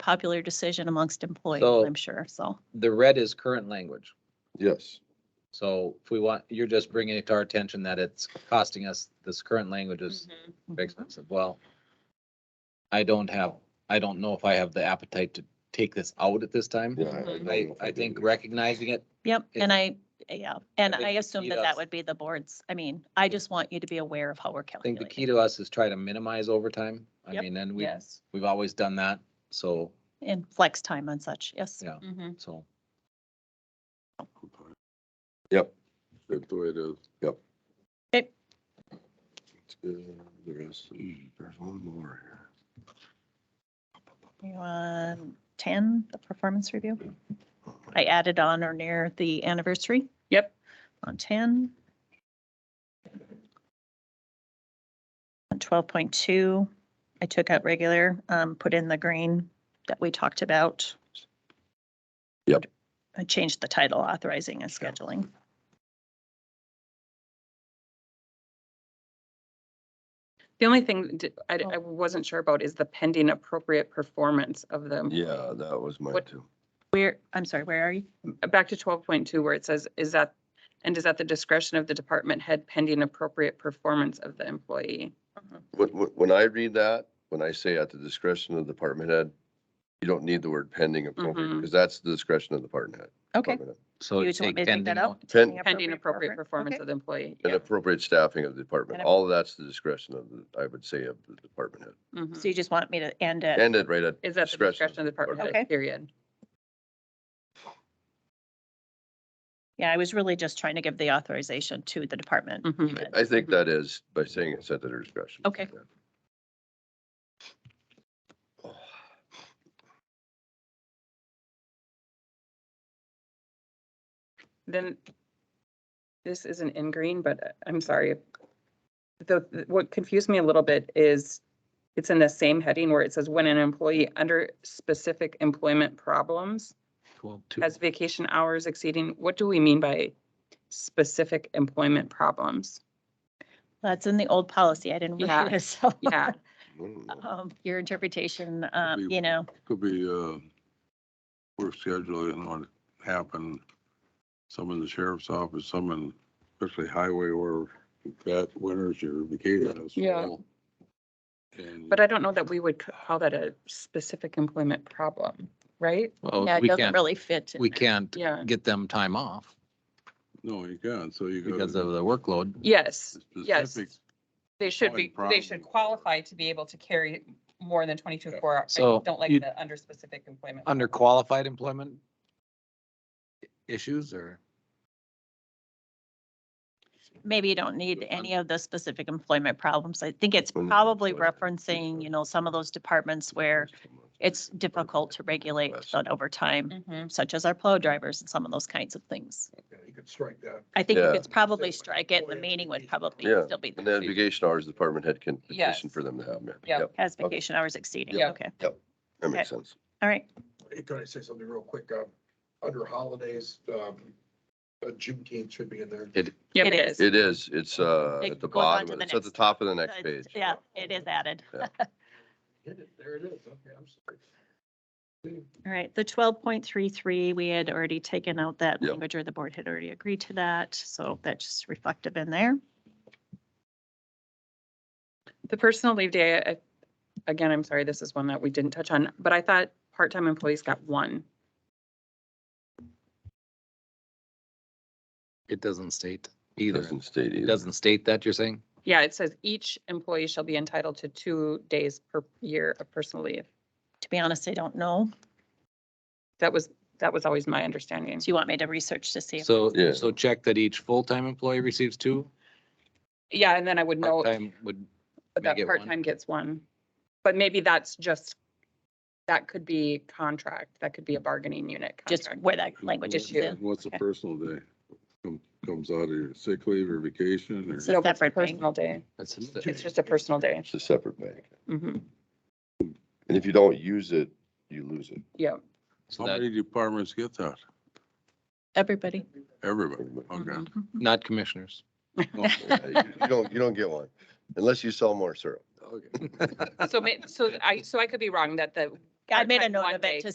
popular decision amongst employees, So- I'm sure, so. The red is current language. Yes, So if we want, you're just bringing it to our attention that it's costing us, this current language is Mm. Mm-hmm. expensive. Well, I don't have, I don't know if I have the appetite to take this out at this time. yeah. I- I don't I, know if Mm-hmm. I do think either. recognizing it, Yep, It- and I, yeah, and I think I the assume key that to that us- would be the board's, I mean, I just want you to be aware of how we're I think the key calculating. to us is try to minimize overtime. I Yep. mean, and we, Yes. we've always done that. So, And flex time and such, yes. Mm-hmm, Yeah. so. Yep, that's the way it is, yep. Okay. Uh, The rest, hmm, there's one more here. You want ten, the performance review? I added on or near the anniversary. Yep. On ten. On twelve point two, I took out regular, um, put in the green that we talked about. Yep. I changed the title authorizing and scheduling. The only thing d- I, d- I wasn't sure about is the pending appropriate performance of them. Yeah, that was mine What- too. Where, I'm sorry, where are you? Back to twelve point two where it says, is that, and is at the discretion of the department head pending appropriate performance of the employee? Mm-hmm. When, when, when I read that, when I say at the discretion of the department head, you don't need the word pending appropriate, Mhm. because that's the discretion of the department head. Okay. department head. So You just want me to take that out? Pending Pending appropriate performance Okay. of the employee. And yeah. appropriate staffing of the department, And a- all of that's the discretion of the, I would say, of the department head. Mhm. So you just want me to end at And it right at. Is at the discretion of the department Okay. head, period. Yeah, I was really just trying to give the authorization to the department. Mhm. I- I think that is by saying it's at their discretion. Okay. Then this isn't in green, but uh, I'm sorry. The, the- what confused me a little bit is it's in the same heading where it says when an employee under specific employment problems has vacation hours exceeding, what do we mean by specific employment problems? That's in the old policy. I didn't Yeah. read it, so. Yeah, Mm. um, Your interpretation, um, be- you know, Could be, uh, work schedule, you know, what happened, some in the sheriff's office, some in, especially highway or that winter's your vacation. is Yeah. full. And but I don't know that we would c- call that a specific employment problem, right? yeah, it doesn't really fit. in We there. can't Yeah. get them time off No, you can't, so you because got of the workload. Yes, a yes. specific They should be, Employment they should problem. qualify to be able to carry more than twenty-two four hours. I So don't like you- the under specific employment. Under problem. qualified employment issues or? Maybe you don't need any of the specific employment problems. I think it's Well, probably employment. referencing, you know, some of those departments where it's difficult to regulate on overtime, Mhm. such as our plow drivers and some of those kinds of things. Yeah, you could strike that. I think you Yeah. could probably strike it. The meaning would probably Yeah, still be, And there. then vacation hours, the department head can petition Yes. for them to have, yeah. Yeah. Yep, has vacation hours exceeding. Yeah. Okay, That makes sense. all right. Hey, Can I say something real quick? Uh, Under holidays, um, uh, Juneteenth should be in there. Yeah, It it is. is. It is, it's, uh, It at the goes on bottom, to of- the it's at the next- top of the next page. Yeah, it is added. Hit it, There it is. Okay, I'm sorry. All right, the twelve point three three, we had already taken out that Yep. language or the board had already agreed to that, so that's just reflective in there. The personal leave day, I- again, I'm sorry, this is one that we didn't touch on, but I thought part-time employees got one. It doesn't state It either. Doesn't state It either. doesn't state that, you're saying? Yeah, it says each employee shall be entitled to two days per year of personal leave. To be honest, I don't know. That was, that was always my understanding. Do you want me to research to see? if- So, Yeah. so check that each full-time employee receives two, Yeah, and then I would know part-time would, may that get one. part-time gets one. But maybe that's just, that could be contract, that could be a bargaining unit Just contract. where that language is Just in. What's a Okay. personal day? Com- Comes out of your sick leave or vacation or? It's a No, but separate thing. Personal day. that's, It's just a personal day. It's a separate bank. Mm-hmm. Mhm. And if you don't use it, you lose it. Yeah. How so that- many departments get that? Everybody. Everybody, okay. Mhm. not commissioners. Yeah, You you don't, you don't get one, unless you sell more syrup. Okay. So may, so I, so I could be wrong that the I made a part-time note one of day. it to